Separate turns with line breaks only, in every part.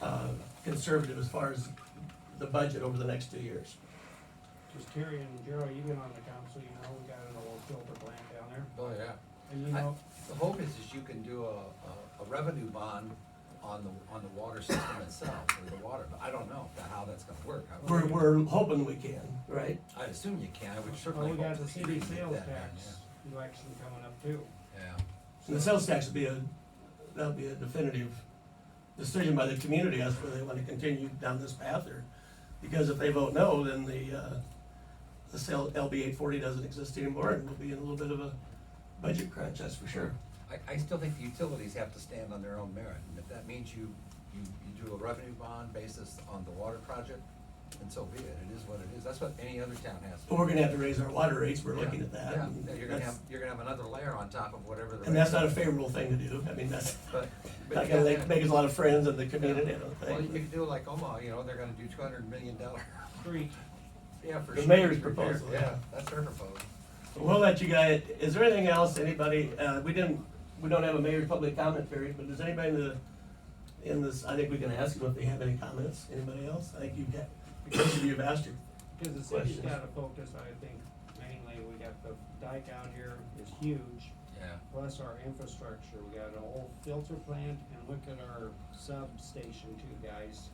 uh, conservative as far as the budget over the next two years.
Just Terry and Gerald, you've been on the council, you know, we got an old filter plant down there,
Oh, yeah.
and you know,
The hope is, is you can do a, a, a revenue bond on the, on the water system itself, or the water, but I don't know if that- how that's gonna work. I-
We're, we're hoping we can, right?
I assume you can, I would
well,
certainly.
oh, we got
hope
the
that you
city
can get
sales
that done,
tax election coming up too.
Yeah,
And the sales tax would be a, that would be a definitive decision by the community as to whether they want to continue down this path or, because if they vote no, then the, uh, the sale, LB eight forty doesn't exist anymore and we'll be in a little bit of a budget crunch, that's for sure.
yeah. I, I still think the utilities have to stand on their own merit, and if that means you, you, you do a revenue bond basis on the water project, then so be it, it is what it is, that's what any other town has. to
But we're gonna have to raise our water rates, we're looking at
Yeah,
that. and
Yeah, you're gonna
that's-
have, you're gonna have another layer on top of whatever the.
And that's
rate
not a
is.
favorable thing to do, I mean, that's
But. but
not gonna
you gotta
make,
have-
make us a lot of friends in the community, I don't
Well, you
think.
could do like Omaha, you know, they're gonna do two hundred million dollar,
Street,
yeah, for sure.
The mayor's
Repair-
proposal, yeah.
Yeah, that's their proposal.
We'll let you guys, is there anything else, anybody, uh, we didn't, we don't have a mayor's public comment period, but does anybody in the, in this, I think we can ask them if they have any comments, anybody else? I think you've got, because of you have asked your,
cause the city's
Questions?
gotta focus, I think, mainly, we got the dike out here is huge,
Yeah,
plus our infrastructure, we got an old filter plant, and look at our substation too, guys.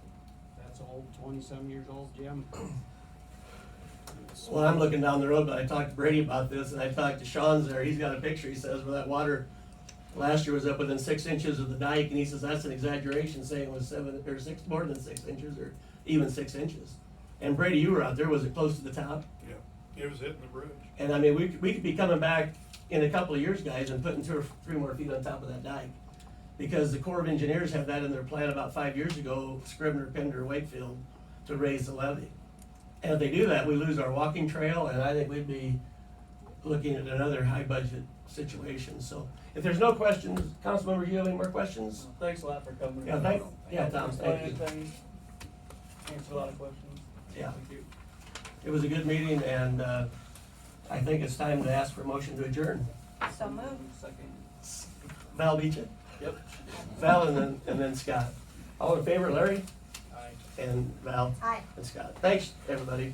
That's old, twenty-some years old, Jim.
well, I'm looking down the road, but I talked to Brady about this, and I talked to Sean's there, he's got a picture, he says, where that water last year was up within six inches of the dike, and he says, that's an exaggeration, saying it was seven, or six, more than six inches, or even six inches. And Brady, you were out there, was it close to the top?
Yeah, it was hitting the bridge.
And I mean, we, could- we could be coming back in a couple of years, guys, and putting two or three more feet on top of that dike. Because the Corps of Engineers had that in their plan about five years ago, Scrivener, Pender, Wakefield, to raise the levy. And if they do that, we lose our walking trail, and I think we'd be looking at another high budget situation, so. If there's no questions, council members, you have any more questions?
Thanks a lot for coming.
Yeah, thank, yeah, Tom, thank you.
Explain things, Answer a lot of questions.
Yeah.
Thank you.
It was a good meeting, and, uh, I think it's time to ask for a motion to adjourn.
So moved.
Second.
Val beat you? Yep. Val and then, and then Scott. All in favor, Larry
I-
and Val
Aye.
and Scott. Thanks, everybody.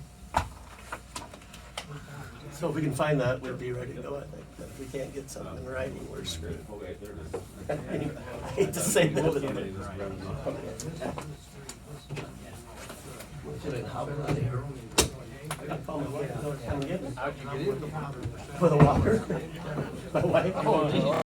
So if we can find that, we'd be ready to go, I think. But if we can't get something right, we're screwed.
Okay, there it is.
Anyway, I Hate to say that, but.
Somebody just grabbed it off.
Should I hobble out of here? I call my wife, I was coming in
how'd you get in?
with a walker. My wife.
Oh, geez.